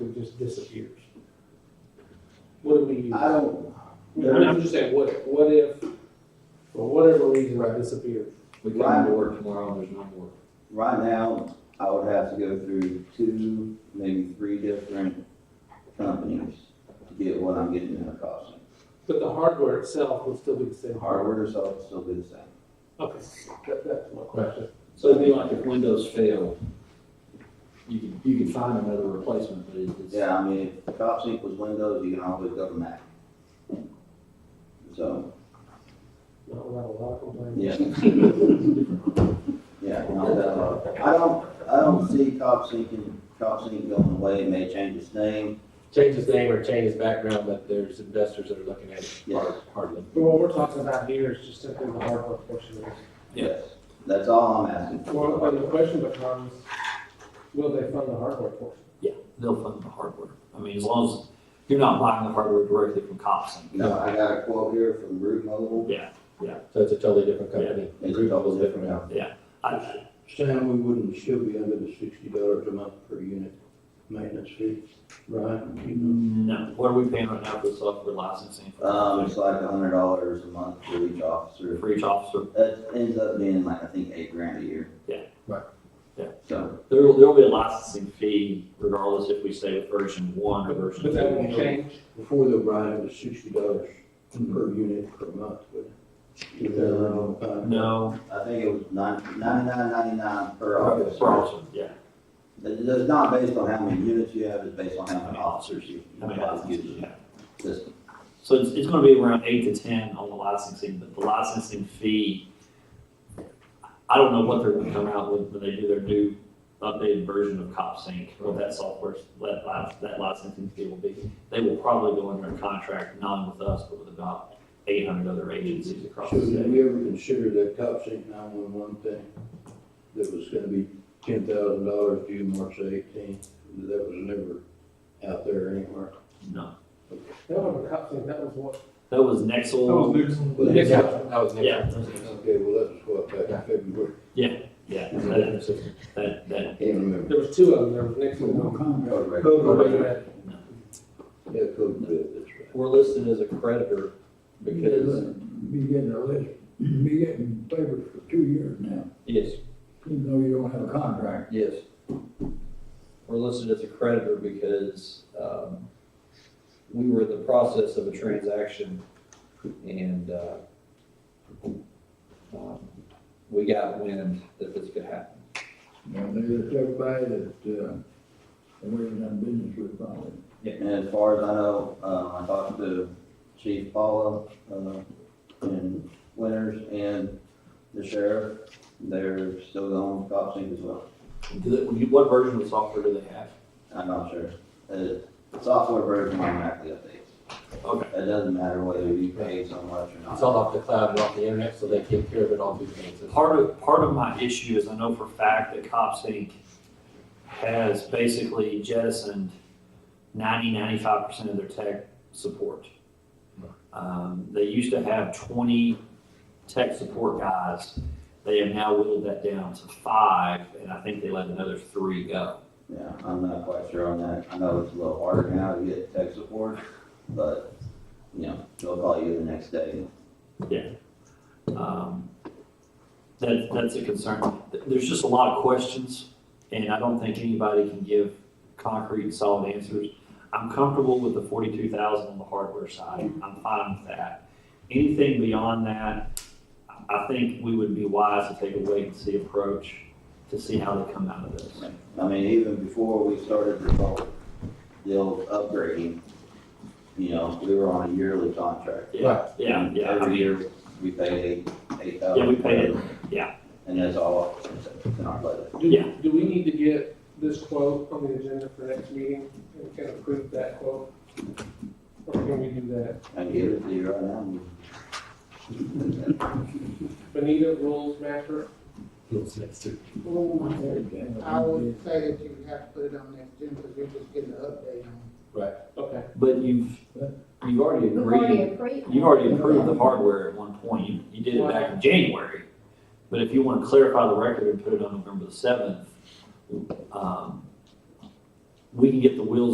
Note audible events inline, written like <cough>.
just disappears? What do we use? I don't, I'm I'm just saying, what, what if, for whatever reason, it disappears? We come to work tomorrow and there's no more. right now, I would have to go through two, maybe three different companies to get what I'm getting in the cost. But the hardware itself would still be the same. Hardware itself will still be the same. Okay, that, that's my question. So it'd be like if Windows failed, you can, you can find another replacement, but it- it's. Yeah, I mean, if CopSync was Windows, you can always go to Mac. So, Not allowed a lot of complaints. yeah, yeah, not that hard. I don't, I don't see CopSync and CopSync going away, it may change its name. change his name or change his background, but there's investors that are looking at it Yeah. hard, hardly. But what we're talking about here is just simply the hardware portion of it. Yes. That's all I'm asking Well, for. and the question becomes, will they fund the hardware portion? <laughs> they'll fund the hardware. I mean, as long as you're not buying the hardware directly from Copson. No, I got a quote here from Root Mobile. So it's a totally different company. It's Group totally is different now. I, Sam, we wouldn't still be under the sixty dollars a month per unit maintenance fee, right? You know, no, what are we paying right now for the software licensing? Um, it's like a hundred dollars a month for each officer. For each officer, That ends up being like, I think, eight grand a year. Yeah. Right. Yeah. So, there, there'll be a licensing fee regardless if we stay with version one or version two. But that won't change. Before the O'Brien, it was sixty dollars Mm-hmm. per unit per month, but. uh, No, I think it was nine, ninety-nine, ninety-nine per for officer. officer, yeah. It- It's not based on how many units you have, it's based on how many officers you I mean, have. licenses, yeah. Just- So it's, it's gonna be around eight to ten on the licensing, but the licensing fee, I don't know what they're gonna come out with when they do their new updated version of CopSync, what that software, that, li- that licensing fee will be. They will probably go under a contract, not with us, but with about eight hundred other agencies across So the did state. we ever consider that CopSync nine-one-one thing that was gonna be ten thousand dollars due March eighteenth? That was never out there anywhere. No, That was a cop thing, that was what. that was Nexel, But- Yeah. That was yeah, Nixon. Okay, well, that was what, back in February. yeah, that, that, that, Can't remember. There was two of them, there was Nixon and Home. Road rage. Yeah, code red, that's right. We're listed as a creditor because, Be getting a list, be getting papers for two years now, yes, even though you don't have a contract. yes. We're listed as a creditor because, um, we were in the process of a transaction and, uh, um, we got wind that this could happen. You know, there's everybody that, uh, we're in that business with probably. And as far as I know, uh, I talked to Chief Paula, uh, and Winters and the sheriff. They're still going with CopSync as well. do they- what version of the software do they have? I'm not sure. Uh, The software version automatically updates. Okay. It doesn't matter whether you pay so much or not. It's all off the cloud and off the internet, so they take care of it all through the Part of, part of my issue is I know for a fact that Cops Inc. has basically jettisoned 90, 95% of their tech support. Um, they used to have 20 tech support guys. They have now whittled that down to five, and I think they let another three go. Yeah, I'm not quite sure on that. I know it's a little harder now to get tech support, but, you know, they'll call you the next day. Um, That, that's a concern. Th- There's just a lot of questions, and I don't think anybody can give concrete and solid answers. I'm comfortable with the forty-two thousand on the hardware side. I'm fine with that. Anything beyond that, I- I think we would be wise to take a wait-and-see approach to see how they come out of this. I mean, even before we started the whole deal upgrading, you know, we were on a yearly contract. Yeah, yeah, And yeah. I Every mean, year, we paid eight thousand. Yeah, we paid it. Yeah. And that's all it's in our budget. Do, Yeah. do we need to get this quote on the agenda for next meeting and can approve that quote? Or can we do that? I can give it to you right now. Benita, rules master? internet. I would say that you would have to put it on next agenda because you're just getting an update on it. Okay. But you've, you've already We've already agreed, agreed. you've already approved the hardware at one point. You, you did it back in January. But if you want to clarify the record and put it on November the seventh, um, we can get the wheels